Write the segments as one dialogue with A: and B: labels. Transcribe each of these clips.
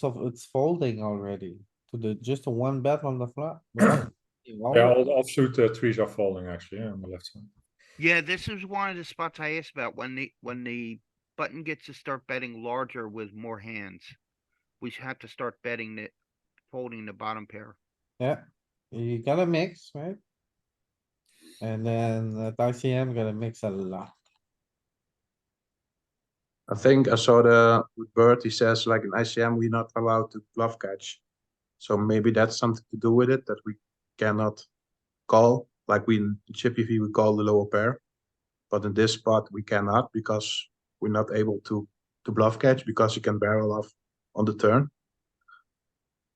A: So it's folding already to the, just a one bet on the flop. Well, you
B: Yeah,
A: always-
B: all the offsuit uh, trees are falling actually yeah, on the left side.
C: Yeah, this is one of the spots I asked about when the, when the button gets to start betting larger with more hands. We should have to start betting the, folding the bottom pair.
A: Yeah, you gotta mix, right? And then at ICM, gotta mix a lot.
D: I think I saw the Bert, he says like in ICM, we're not allowed to bluff catch. So maybe that's something to do with it, that we cannot call, like we in Chippy V, we call the lower pair. But in this spot, we cannot because we're not able to, to bluff catch because you can barrel off on the turn.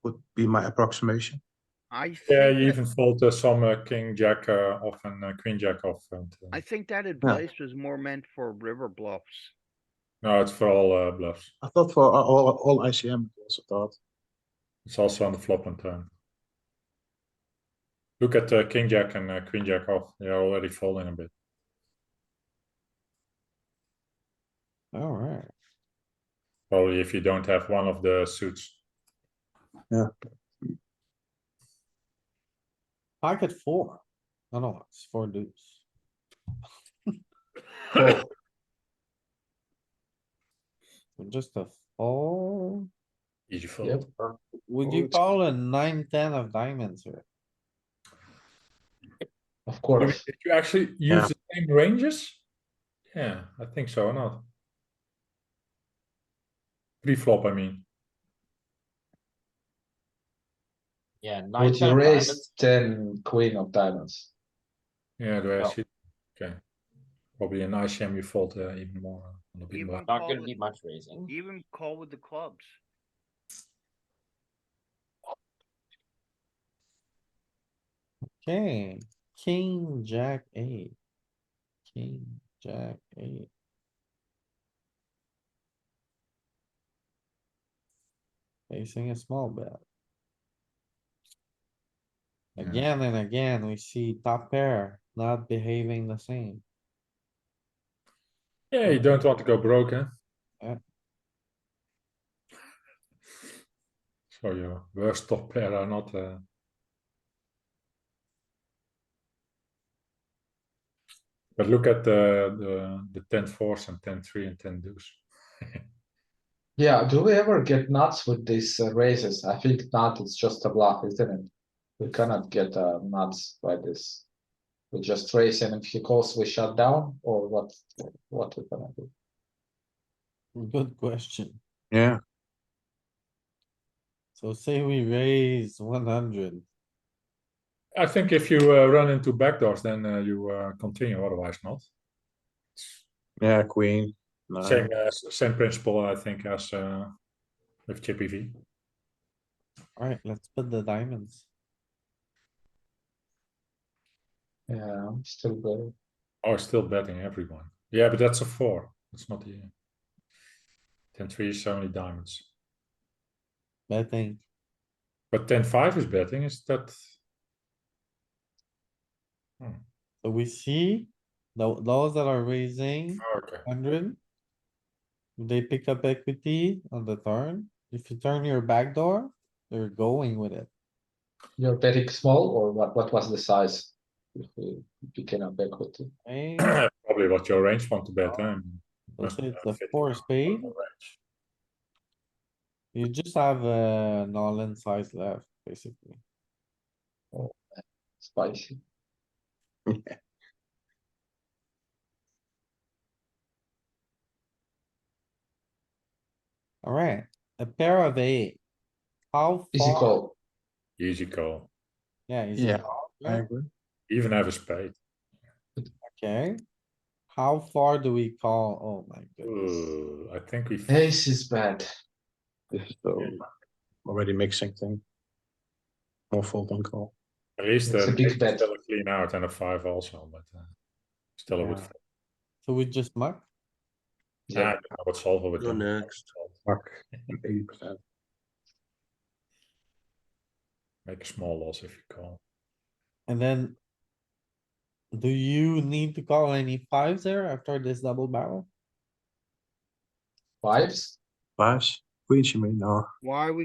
D: Would be my approximation.
C: I
B: Yeah,
C: think
B: you
C: that-
B: even fold uh, some uh, king jack uh, off and uh, queen jack off. And, uh,
C: I think that advice was more meant for river bluffs.
B: no, it's for all uh, bluffs.
D: I thought for all- all, all ICM, I also thought.
B: It's also on the flop and turn. Look at uh, king jack and uh, queen jack off. They are already falling a bit.
A: Alright,
B: Probably if you don't have one of the suits.
A: pocket four. I don't know, it's four deuce. Just a fold.
B: Easy fold.
A: Would you
D: Fold.
A: call a nine, ten of diamonds here?
E: Of
B: I mean,
E: course.
B: Did you actually use
D: Yeah.
B: the same ranges? Yeah, I think so. Or not pre-flop. I mean.
E: Yeah, nine,
F: Would
E: ten
F: you raise
E: diamonds.
F: ten queen of diamonds?
B: Yeah, the way I
E: Well.
B: see it. Okay. Probably an ICM you fold uh, even more uh, on the big
C: Even
B: blind.
E: Not
C: call
E: gonna
C: with-
E: need much raising.
C: Even call with the clubs.
A: Okay, king, jack, eight. King, jack, eight. Facing a small bet.
B: Yeah.
A: Again and again, we see top pair not behaving the same.
B: Yeah, you don't want to go broke, huh?
A: Yeah.
B: So your worst top pair are not. Uh... But look at the the the ten fours and ten three and ten deuce.
F: Yeah, do we ever get nuts with these uh, raises? I think not, it's just a bluff, isn't it? We cannot get uh, nuts by this. We just raise and if he calls, we shut down or what, what we gonna do?
A: Good question.
D: Yeah.
A: So say we raise one hundred.
B: I think if you uh, run into backdoors, then uh, you uh, continue. Otherwise, not.
D: Yeah, queen. nine.
B: Same uh, s- same principle, I think, as uh, with Chippy V.
A: Alright, let's put the diamonds.
F: Yeah, I'm still there.
B: Oh, still betting everyone. Yeah, but that's a four. That's not the. Ten three is only diamonds,
A: Betting.
B: but ten five is betting. Is that? Hmm,
A: So we see tho- those that are raising
D: Oh,
B: Okay.
A: hundred. They pick up equity on the turn. If you turn your back door, they're going with it.
F: You're betting small or what, what was the size? If we picking up equity,
A: right?
B: Probably what your range want to bet.
D: Oh.
B: huh?
A: Let's
B: Must,
A: say
B: uh,
A: it's the
B: fit
A: four spade.
B: your range.
A: You just have a all-in size left, basically.
F: spicy.
A: Alright, a pair of eight. How
F: Easy
A: far?
F: call,
B: Easy call.
A: Yeah, easy
D: Yeah.
A: call,
D: I
A: right?
D: agree.
B: Even have a spade.
A: Okay. How far do we call? Oh my goodness.
B: Ooh, I think we.
F: ace is bad.
D: This is the already mixing thing. More fold than call.
B: At least
F: It's
B: uh,
F: a big
B: maybe
F: bet.
B: still a clean out and a five also, but uh, still a good.
A: Yeah.
D: Mm.
A: So we just muck?
B: Yeah, I don't know what solver would
D: Go
B: do.
D: next. Fuck. Eighty percent.
B: Make a small loss if you call.
A: And then. Do you need to call any fives there after this double barrel?
F: Fives?
D: Fives?
G: queen she may know.
D: Why are we